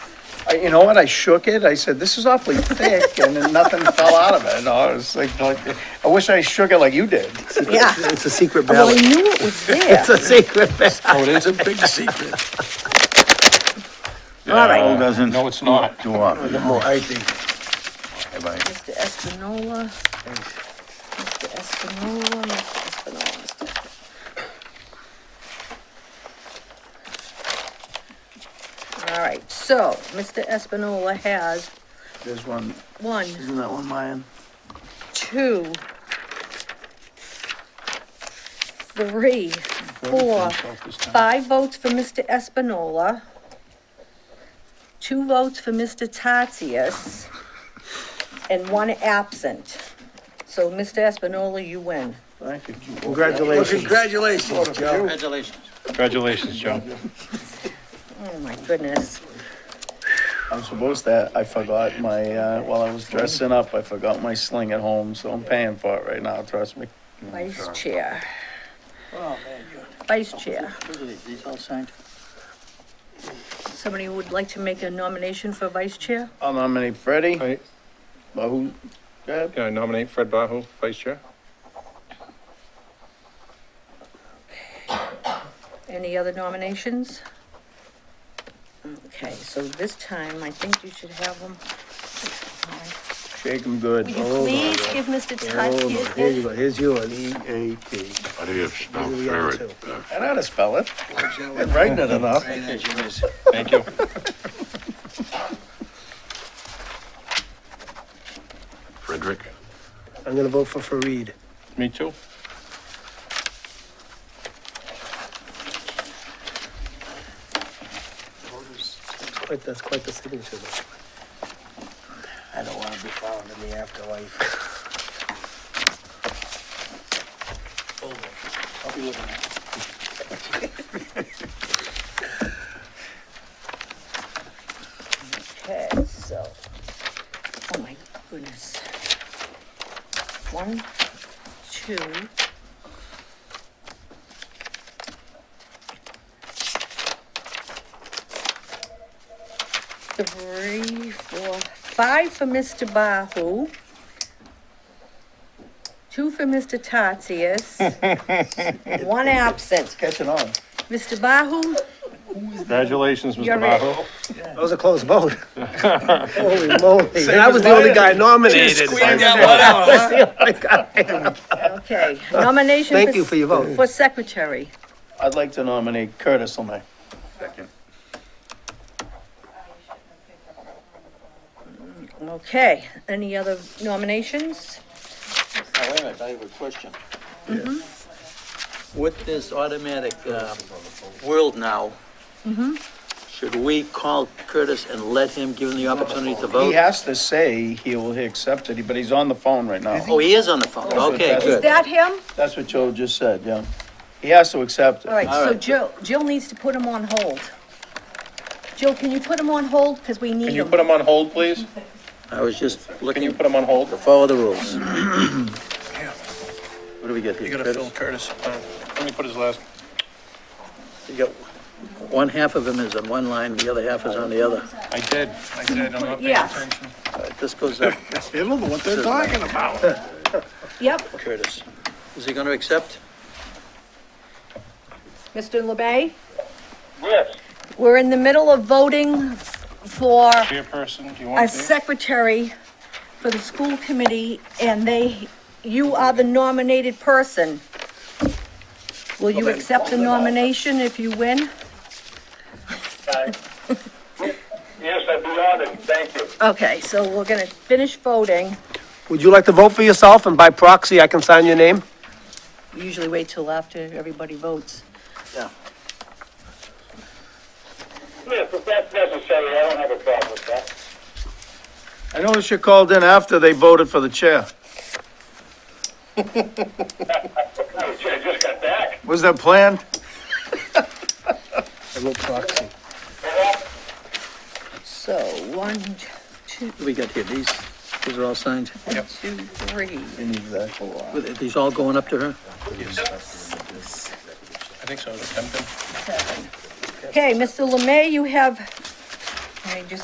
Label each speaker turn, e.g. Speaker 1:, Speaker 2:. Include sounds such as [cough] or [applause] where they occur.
Speaker 1: I, you know what, I shook it, I said, this is awfully thick, and then nothing [laughs] fell out of it, and I was like, like, I wish I shook it like you did.
Speaker 2: Yeah.
Speaker 3: It's a secret
Speaker 2: Well, I
Speaker 3: ballot.
Speaker 2: knew it
Speaker 3: [laughs]
Speaker 2: was there.
Speaker 3: It's a secret ballot.
Speaker 4: Oh, it is a big [laughs] secret.
Speaker 2: All right,
Speaker 5: doesn't
Speaker 4: No, it's not.
Speaker 5: do up.
Speaker 3: No, I think,
Speaker 2: Mr. Espinola, Mr. Espinola, Mr. Espinola, Mr. Espinola. All right, so Mr. Espinola has
Speaker 3: there's one,
Speaker 2: one,
Speaker 3: isn't that one mine?
Speaker 2: two, three, four, five votes for Mr. Espinola, two votes for Mr. Tatius, and one absent. So, Mr. Espinola, you win.
Speaker 1: Thank you.
Speaker 3: Congratulations.
Speaker 4: Congratulations, Joe.
Speaker 5: Congratulations.
Speaker 4: Congratulations, Joe.
Speaker 2: Oh, my goodness.
Speaker 1: I'm supposed to, I forgot my, uh, while I was dressing up, I forgot my sling at home, so I'm paying for it right now, trust me.
Speaker 2: Vice Chair,
Speaker 5: Oh, man, you-
Speaker 2: Vice Chair.
Speaker 5: Look at these, these all signed.
Speaker 2: Somebody would like to make a nomination for Vice Chair?
Speaker 1: I'll nominate Freddie.
Speaker 6: Right.
Speaker 1: But who, go ahead.
Speaker 6: Can I nominate Fred Bahu, vice chair?
Speaker 2: Any other nominations? Okay, so this time, I think you should have them.
Speaker 1: shake him good.
Speaker 2: Will you please give Mr.
Speaker 3: Oh, my, here you
Speaker 2: Tatsias?
Speaker 3: go, here's yours. E A T.
Speaker 7: How do you spell
Speaker 3: These are the other
Speaker 7: ferret? uh,
Speaker 3: two.
Speaker 1: I know how to spell it. Been [laughs] writing it enough.
Speaker 5: Right as you is.
Speaker 4: Thank you.
Speaker 7: Frederick?
Speaker 3: I'm gonna vote for Fareed.
Speaker 4: Me too.
Speaker 3: Quite, that's quite the signature. though.
Speaker 5: I don't wanna be found in the afterlife. I'll be looking at
Speaker 2: Okay, so, oh my goodness. One, two. Three, four, five for Mr. Bahu. Two for Mr.
Speaker 3: [laughs]
Speaker 2: Tatius. One absent.
Speaker 1: Catching on.
Speaker 2: Mr. Bahu,
Speaker 4: Congratulations,
Speaker 2: You're
Speaker 4: Mr.
Speaker 2: right.
Speaker 4: Bahu.
Speaker 3: That was a close [laughs] vote. Holy moly. And I was the only guy nominated. I was the only guy. [laughs]
Speaker 2: okay, nomination.
Speaker 3: Thank you for your vote.
Speaker 2: For secretary.
Speaker 1: I'd like to nominate Curtis Lemay. Second.
Speaker 2: Okay, any other nominations?
Speaker 5: Now, wait a minute, I have a question. Mm-hmm. With this automatic, um, world now, should we call Curtis and let him, give him the opportunity to
Speaker 1: He
Speaker 5: vote?
Speaker 1: has to say he will accept it, but he's on the phone right now.
Speaker 5: Oh, he is on the phone, okay,
Speaker 1: Is
Speaker 2: Is
Speaker 5: good.
Speaker 2: that him?
Speaker 1: That's what Joe just said, yeah. He has to accept
Speaker 2: All
Speaker 1: it.
Speaker 2: right, so
Speaker 5: right.
Speaker 2: Jill, Jill needs to put him on hold. Jill, can you put him on hold, because we need
Speaker 6: Can you
Speaker 2: him?
Speaker 6: put him on hold, please?
Speaker 5: I was just
Speaker 6: Can you
Speaker 5: looking
Speaker 6: put him on hold?
Speaker 5: to follow the [clears throat] rules. What do we get
Speaker 4: You
Speaker 5: here,
Speaker 4: gotta
Speaker 5: Curtis?
Speaker 4: fill Curtis. Uh, Let me put his last.
Speaker 5: You got, one half of him is on one line, the other half is on the other.
Speaker 4: I did, I did, I'm not paying
Speaker 2: Yeah.
Speaker 4: attention.
Speaker 5: All right, This
Speaker 4: [laughs]
Speaker 5: goes up,
Speaker 4: They don't know what they're talking about.
Speaker 2: Yep,
Speaker 5: Curtis. Is he gonna accept?
Speaker 2: Mr. LeBay?
Speaker 4: Yes.
Speaker 2: We're in the middle of voting for
Speaker 4: Dear person, do you
Speaker 2: a
Speaker 4: want to?
Speaker 2: secretary for the school committee, and they, you are the nominated person. Will you accept the nomination if you win?
Speaker 8: Yes, I'd be honored, thank you.
Speaker 2: Okay, so we're gonna finish voting.
Speaker 3: Would you like to vote for yourself and by proxy, I can sign your name?
Speaker 2: We usually wait till after everybody votes.
Speaker 8: Yes, if that's necessary, I don't have a problem with that.
Speaker 1: I noticed you called in after they voted for the
Speaker 3: [laughs]
Speaker 1: chair.
Speaker 8: Oh, gee, I just got back.
Speaker 1: Was that planned?
Speaker 3: I vote proxy.
Speaker 2: So, one, two,
Speaker 5: What do we got here? These, these are all signed?
Speaker 2: two, three,
Speaker 5: Were these all going up to her?
Speaker 4: I think so, Tempton.
Speaker 2: seven. Okay, Mr. Lemay, you have, let me just